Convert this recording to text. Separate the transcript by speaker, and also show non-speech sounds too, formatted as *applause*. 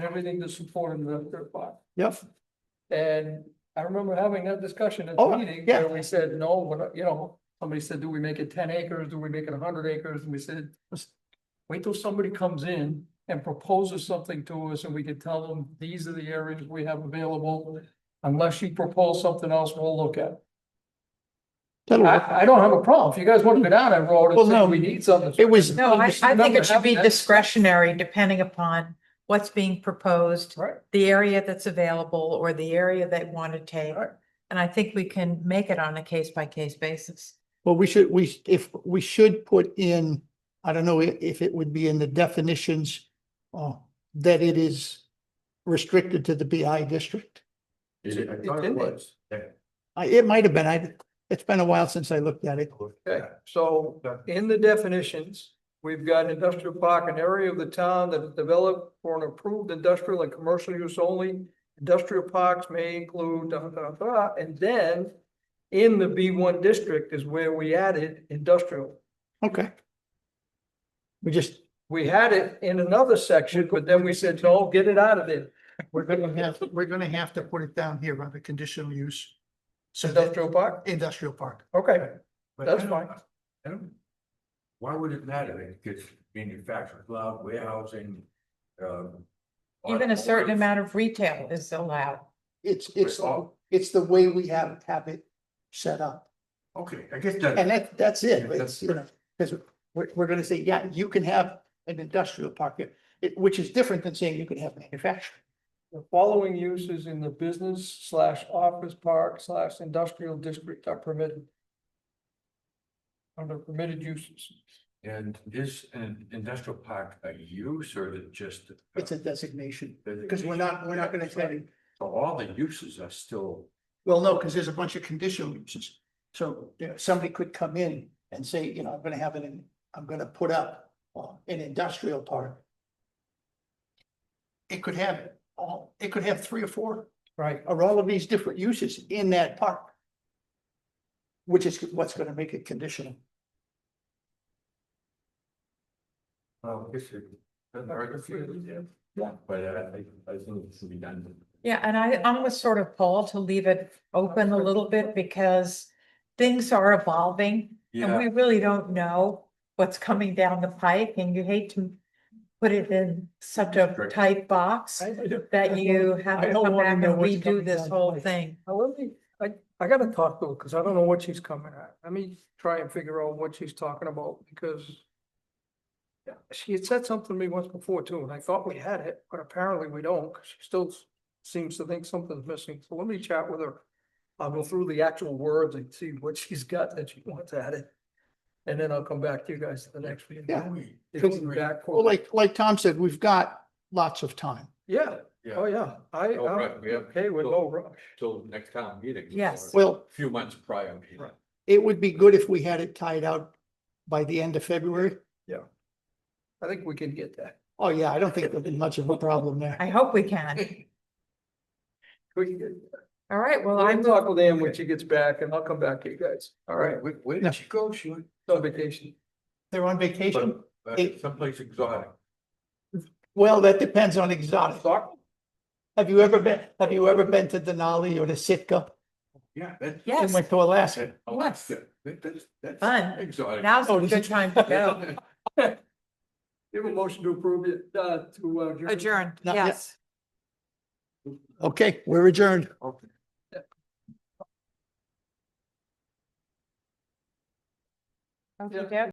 Speaker 1: everything to support another third party.
Speaker 2: Yep,
Speaker 1: And I remember having that discussion at
Speaker 2: Oh,
Speaker 1: the meeting
Speaker 2: yeah.
Speaker 1: where we said, no, we're not- you know, somebody said, do we make it ten acres? Do we make it hundred acres? And we said, "Let's wait till somebody comes in and proposes something to us and we can tell them, these are the areas we have available. Unless you propose something else, we'll look at. it."
Speaker 2: that'll work.
Speaker 1: I, I don't have a problem. If you guys want to go down that road
Speaker 2: Well,
Speaker 1: and say
Speaker 2: no,
Speaker 1: we need something.
Speaker 2: It was,
Speaker 3: No, I, I think
Speaker 1: remember
Speaker 3: it should be
Speaker 1: having that-
Speaker 3: discretionary depending upon what's being proposed,
Speaker 1: Right,
Speaker 3: the area that's available or the area they want to take.
Speaker 1: Right.
Speaker 3: And I think we can make it on a case by case basis.
Speaker 2: well, we should, we, if, we should put in, I don't know i- if it would be in the definitions uh, that it is restricted to the BI district.
Speaker 4: Is it? I
Speaker 1: It's
Speaker 4: thought
Speaker 1: in
Speaker 4: it
Speaker 1: there.
Speaker 4: was. Yeah.
Speaker 2: I, it might have been, I, it's been a while since I looked at it.
Speaker 1: okay. So In the definitions, we've got industrial park, an area of the town that is developed for an approved industrial and commercial use only. Industrial parks may include da, da, da, and then in the B one district is where we added industrial.
Speaker 2: Okay. We just,
Speaker 1: We had it in another section, but then we said, no, get it out of there.
Speaker 2: we're gonna *laughs* have, we're gonna have to put it down here under conditional use. So
Speaker 1: Industrial park,
Speaker 2: industrial park.
Speaker 1: okay,
Speaker 4: But
Speaker 1: That's
Speaker 4: I don't-
Speaker 1: fine.
Speaker 4: I don't- Why would it matter? Because manufactured cloud warehousing, um.
Speaker 3: Even a certain amount of retail is allowed.
Speaker 2: It's, it's, it's the way we have, have it set up.
Speaker 4: Okay, I guess that.
Speaker 2: And that, that's
Speaker 4: Yeah,
Speaker 2: it, it's,
Speaker 4: that's-
Speaker 2: you know, because we're, we're gonna say, yeah, you can have an industrial park, it- it, which is different than saying you can have manufacturing.
Speaker 1: The following uses in the business slash office park slash industrial district are permitted. Under permitted uses.
Speaker 4: And is an industrial park a use or is it just? a-
Speaker 2: It's a designation,
Speaker 4: designation?
Speaker 2: because we're not, we're not gonna say,
Speaker 4: So all the uses are still,
Speaker 2: well, no, because there's a bunch of conditional uses. So, you know, somebody could come in and say, you know, I'm gonna have an, I'm gonna put up uh, an industrial park. It could have all, it could have three or four
Speaker 1: Right.
Speaker 2: are all of these different uses in that park. Which is what's gonna make it conditional.
Speaker 4: well, I guess it doesn't hurt if you- yeah.
Speaker 1: Yeah.
Speaker 4: But I, I I think it should be done.
Speaker 3: Yeah, and I, I'm with sort of Paul to leave it open a little bit because things are evolving. And
Speaker 4: Yeah,
Speaker 3: we really don't know what's coming down the pike and you hate to put it in such a
Speaker 4: Correct.
Speaker 3: tight box that you have
Speaker 2: I
Speaker 3: to
Speaker 2: don't
Speaker 3: come
Speaker 2: wanna
Speaker 3: back and
Speaker 2: know what's coming
Speaker 3: redo this
Speaker 2: down the
Speaker 3: whole
Speaker 2: pike.
Speaker 3: thing.
Speaker 1: Now, let me, I, I gotta talk to her, cause I don't know what she's coming at. Let me try and figure out what she's talking about, because. yeah, She had said something to me once before too, and I thought we had it, but apparently we don't, 'cause she still s- seems to think something's missing, so let me chat with her. I'll go through the actual words and see what she's got that she wants added. And then I'll come back to you guys at the next meeting.
Speaker 2: Yeah.
Speaker 1: If we're back for-
Speaker 2: Well, like, like Tom said, we've got lots of time.
Speaker 1: Yeah, oh, yeah, I,
Speaker 5: No rush,
Speaker 1: I'm
Speaker 5: we have-
Speaker 1: okay with no rush.
Speaker 5: till next town meeting.
Speaker 3: Yes.
Speaker 5: or
Speaker 2: Well,
Speaker 5: a Few months prior meeting.
Speaker 1: Right.
Speaker 2: it would be good if we had it tied out by the end of February.
Speaker 1: I think we can get that.
Speaker 2: Oh, yeah, I don't think there'll be much of a problem there.
Speaker 3: I hope we
Speaker 2: *laughs*
Speaker 3: can.
Speaker 1: We can get-
Speaker 3: All right, well,
Speaker 1: Well,
Speaker 3: I'm,
Speaker 1: I'll talk with Ann when she gets back and I'll come back to you guys. All right,
Speaker 5: Where, where
Speaker 2: No.
Speaker 5: did she go? She went
Speaker 1: on vacation.
Speaker 2: They're on vacation.
Speaker 5: But- uh,
Speaker 2: Hey.
Speaker 5: someplace exotic.
Speaker 2: Well, that depends on exotic.
Speaker 1: Soccer?
Speaker 2: Have you ever been, have you ever been to Denali or to Sitka?
Speaker 5: Yeah, that's.
Speaker 2: They
Speaker 3: yes,
Speaker 2: Went to Alaska.
Speaker 5: that's- Alaska. That- That's, that's.
Speaker 3: Fun.
Speaker 5: Exotic.
Speaker 3: now's
Speaker 2: Oh,
Speaker 3: a
Speaker 2: this
Speaker 3: good
Speaker 2: is-
Speaker 3: time
Speaker 2: *laughs*
Speaker 3: to go.
Speaker 1: *laughs* You have a motion to approve it, uh, to, uh. adjourn?
Speaker 3: Adjourned,
Speaker 2: Not yet.
Speaker 3: yes.
Speaker 2: Okay, we're adjourned.
Speaker 5: Okay.
Speaker 1: Yeah.
Speaker 3: Okey-doke.